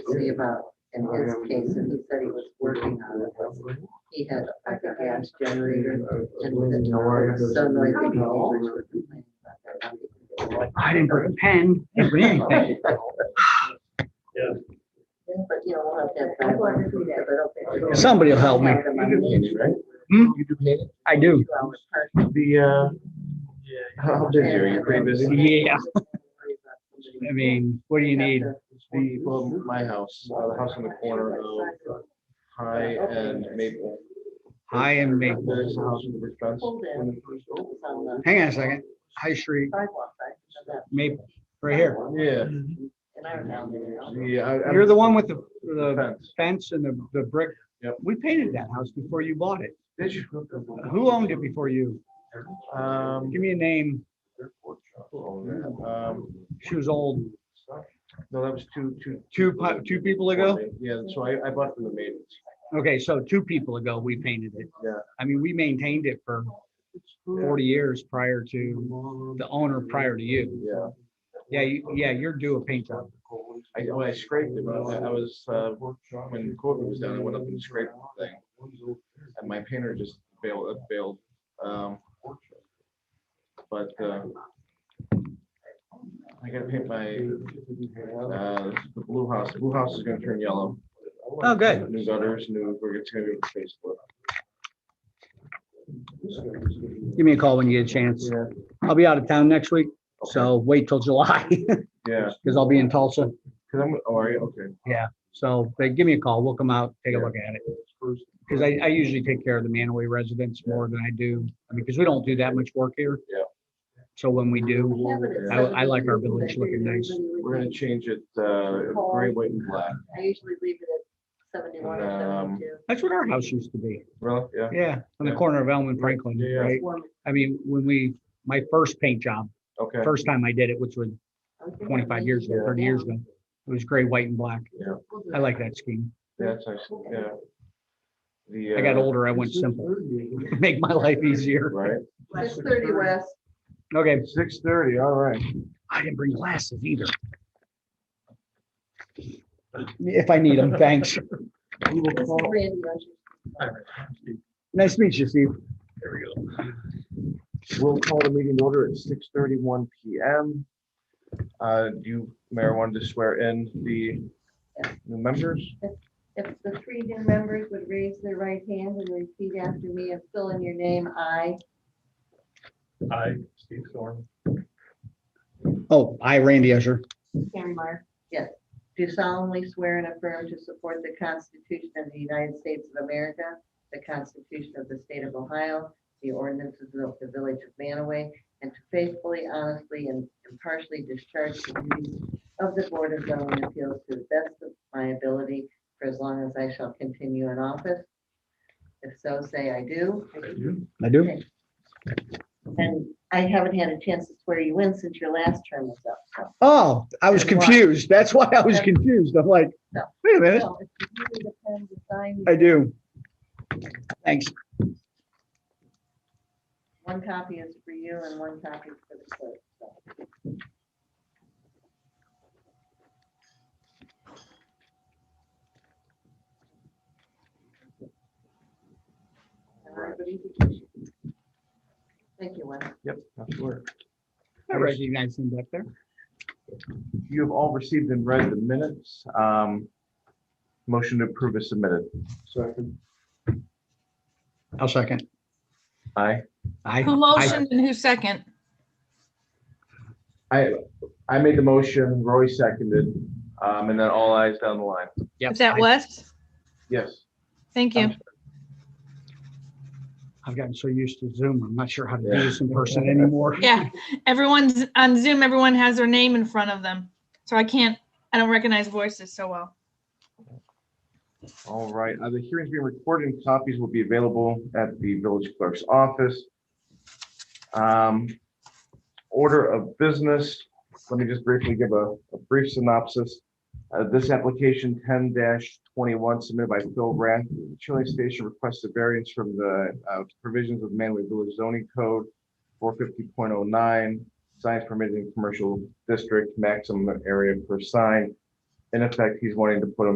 see about in his case, and he said he was working on it. He had like a gas generator and with it, so noisy neighbors were complaining about that. I didn't bring a pen, didn't bring anything. But you know, we'll have that. back. But okay. Somebody will help me. Hmm? I do. Two-hour park. The, uh. How busy are you? Pretty um, busy? Yeah, I mean, what do you need? The, well, my house, uh, the house on the corner of High and Maple. High and Maple. There's a house with a brick fence. Pulled in. It was on the Hang on a second. High Street, sidewalk side of that, Maple, right here. Yeah. and I remember, you know, Yeah. I- I'm- You're the one with the, the Fence. fence and the, the brick. Yep. We painted that house before you bought it. Did you? Who owned it before you? Um. Give me a name. um, She was old, No, that was two, two. two, pu- two people ago? Yeah, so I, I bought from the maidens. Okay, so two people ago, we painted it. Yeah. I mean, we maintained it for forty years prior to, the owner prior to you. Yeah. Yeah, you, yeah, you're due a paint job. I, well, I scraped it, but I I was, uh, when COVID was down, I went up and scraped the thing. And my painter just bailed, uh, bailed. Um, But, uh, I gotta paint my, uh, the blue house, the blue house is gonna turn yellow. Oh, good. New gutters, new, we're it's gonna be a face look. Give me a call when you get a chance. Yeah. I'll be out of town next week, so wait till July, Yeah, because I'll be in Tulsa. cause I'm, oh, are you, okay. So they give me a call, we'll come out, take a look at it. Because I, I usually take care of the Manaway residents more than I do, I mean, because we don't do that much work here. Yeah. So when we do, I, I- I like our village looking nice. We're gonna change it, uh, gray, white and black. I usually leave it at seventy-one or Um, seventy-two. that's what our house used to be. Really? Yeah. Yeah, on the Yeah. corner of Elm and Franklin, Yeah. right? Warm. I mean, when we, my first paint job, Okay. first time I did it, which was I was thinking twenty-five maybe years ago, go thirty years down. ago, it was gray, white and black. We'll do I it. like that scheme. That's nice, yeah. The. I got uh, older, I went simple, make my life easier. Right? Six thirty west. Okay, Six thirty, all right. I didn't bring glasses either. If I need them, thanks. This is Randy, I should- Nice to meet you, Steve. We'll call the meeting to order at six thirty-one P M. Uh, do you, Mayor, wanted to swear in the new members? If the three new members would raise their right hand and repeat after me and fill in your name, I. I, Steve Thorne. Oh, I, Randy Escher, Karen Mark. Yes. Do solemnly swear and affirm to support the Constitution of the United States of America, the Constitution of the State of Ohio, the ordinances of the Village of Manaway, and to faithfully, honestly, and impartially discharge the duties of the Board of Zoning Appeals to the best of my ability for as long as I shall continue in office. If so, say I do. I do. And I haven't had a chance to swear you in since your last term was up, so. Oh, I was confused. That's why I was confused. I'm like, wait a minute, Well, if you need a pen to sign, I do. Thanks. One copy is for you and one copy is for the clerk. so. Everybody be patient. Thank you, Wes. Yep, that's where. I recognize him back there. You have all received and read the minutes. Um, motion to approve is submitted. Second. I'll second. I, I, Who motioned and who second? I, I made the motion, Roy seconded, um, and then all eyes down the line. yeah. Is that Wes? Yes. Thank you. I've gotten so used to Zoom, I'm not sure how to do Yeah. this in person anymore. Yeah, everyone's on Zoom, everyone has their name in front of them. So I can't, I don't recognize voices so well. All right, uh, the hearing's being recorded and copies will be available at the village clerk's office. Um, Order of business, let me just briefly give a a brief synopsis. Uh, This application ten twenty-one submitted by Phil Rath, the Chilling Station requests a variance from the uh, provisions of Manway Village zoning code four fifty point oh nine, signs permitted in commercial district, maximum area per sign in effect, he's wanting to put a